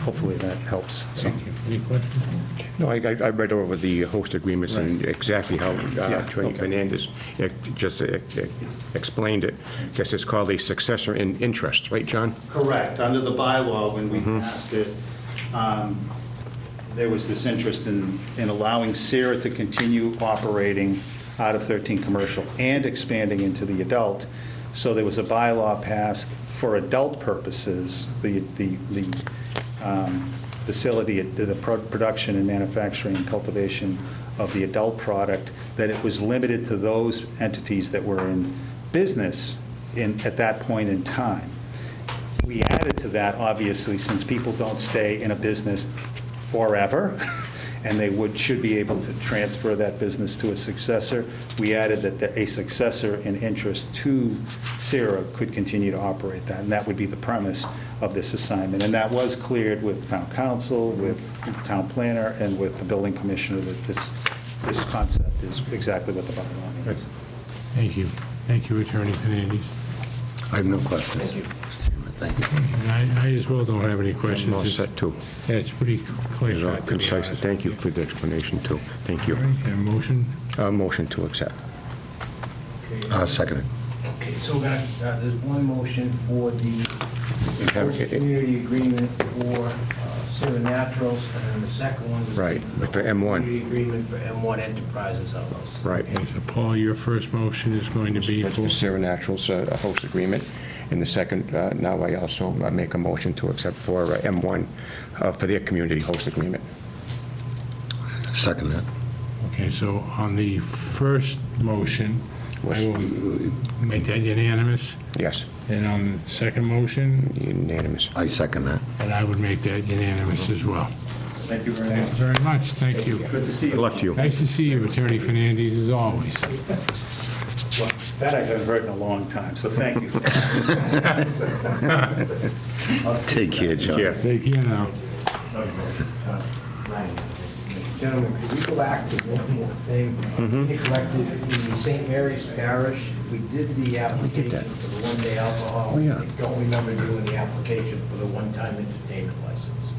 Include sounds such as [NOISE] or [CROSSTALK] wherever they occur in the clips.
hopefully that helps. So, Thank you. Any questions? No, I, I I read over the host agreements and exactly how uh, Yeah, Attorney okay. Fernandez uh, just uh, uh, explained it. Guess it's called a successor in interest, right, John? Correct. Under the bylaw, when we passed it, um, there was this interest in, in allowing Sarah to continue operating out of 13 Commercial and expanding into the adult. So there was a bylaw passed for adult purposes, the, the, the um, facility, the pro- production and manufacturing and cultivation of the adult product, that it was limited to those entities that were in business in, at that point in time. We added to that, obviously, since people don't stay in a business forever, [LAUGHS] and they would, should be able to transfer that business to a successor, we added that the- a successor in interest to Sarah could continue to operate that, and that would be the premise of this assignment. And that was cleared with town council, with town planner, and with the building commissioner, that this, this concept is exactly what the bylaw means. Thank you. Thank you, Attorney Fernandes. I have no questions. Thank you. Mr. Chairman, thank you. And I, I as well don't have any questions. I'm all set, too. Yeah, it's pretty It's clear. all concise. Thank you for the explanation, too. Thank you. Okay, motion? Uh, Motion to accept. Uh, Seconded. Okay, so we're gonna, uh, there's one motion for the have- host community agreement for uh, Sierra Naturals, and then the second one is... Right, for M1. Community agreement for M1 Enterprises LLC. Right. Okay, so Paul, your first motion is going to be That's for, for Sarah Naturals, uh, a host agreement. And the second, uh, now I also uh, make a motion to accept for uh, M1 uh, for their community host agreement. Seconded. okay, so on the first motion, I Was- will make that unanimous, Yes, and on the second motion, unanimous. I second that. and I would make that unanimous as well. Thank you very Thanks much. very much, thank you. Good to see Good you. luck to you. Nice to see you, Attorney Fernandes, as always. Well, That I haven't heard in a long time, so thank [LAUGHS] you. Take care, John. Yeah. Take care now. Gentlemen, could we go back to one more thing? We collected the St. Mary's Parish, we did the application for the one-day alcohol. Oh, yeah. I Don't remember doing the application for the one-time entertainment license.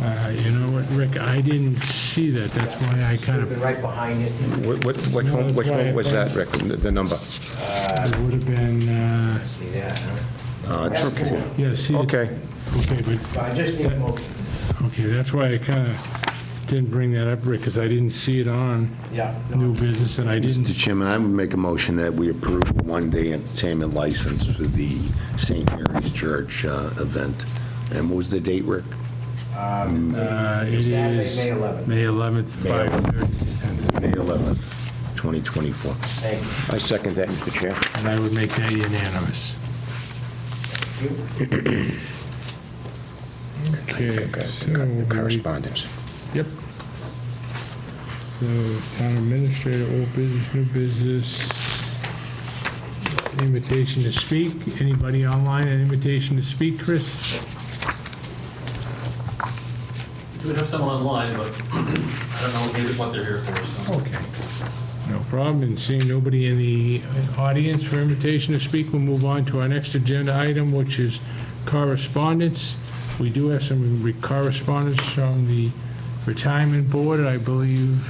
Uh, You know what, Rick, I didn't see that, that's why I kind Should've of, been right behind it. Wh- wh- Which one, which one was that, Rick, the the number? it would have been, uh, See that, huh? Uh, It's okay. yeah, see. it's- Okay. Okay, but, So I just need a motion. okay, that's why I kind of didn't bring that up, Rick, because I didn't see it on Yeah. new business, and I Mr. didn't, Chairman, I would make a motion that we approve a one-day entertainment license for the St. Mary's Church uh, event. And what was the date, Rick? uh, it Saturday, is. May 11th. May 11th, 5:30 to 10:30, May 11th, 2024. Thank you. I second that, Mr. Chair. and I would make that unanimous. Okay, so we Correspondence. Yep. So town administrator, old business, new business, invitation to speak. Anybody online, an invitation to speak, Chris? We have some online, but [CLEARS THROAT] I don't know maybe what they're here for, so. Okay. No problem, and seeing nobody in the audience for invitation to speak, we'll move on to our next agenda item, which is correspondence. We do have some re- correspondence from the retirement board, I believe.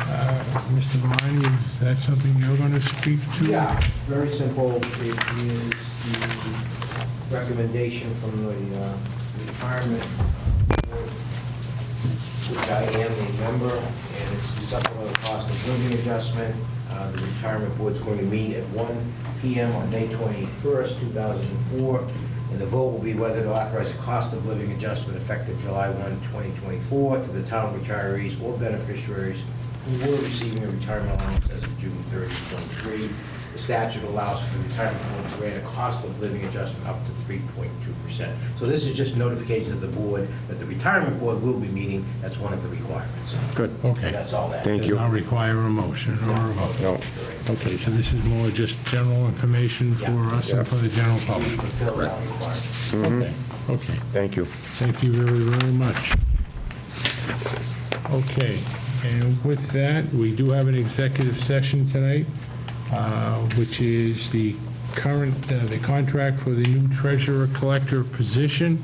uh, Mr. Valani, is that something you're going to speak to? Yeah, very simple. It is the recommendation from the uh, retirement board, which I am a member, and it's the supplemental cost of living adjustment. Uh, The retirement board's going to meet at 1 PM on May 21st, 2004, and the vote will be whether to authorize a cost of living adjustment effective July 1, 2024, to the town retirees or beneficiaries who were receiving a retirement allowance as of June 30, 23. The statute allows for the retirement board to grant a cost of living adjustment up to 3.2%. So this is just notification to the board that the retirement board will be meeting, that's one of the requirements. Good. Okay. That's all that. Thank Does you. not require a motion or a vote. No. Okay, so this is more just general information for us and for the general We public. fulfill that requirement. Mm-hmm. Okay, okay. Thank you. Thank you very, very much. Okay, and with that, we do have an executive session tonight, uh, which is the current, uh, the contract for the new treasurer collector position.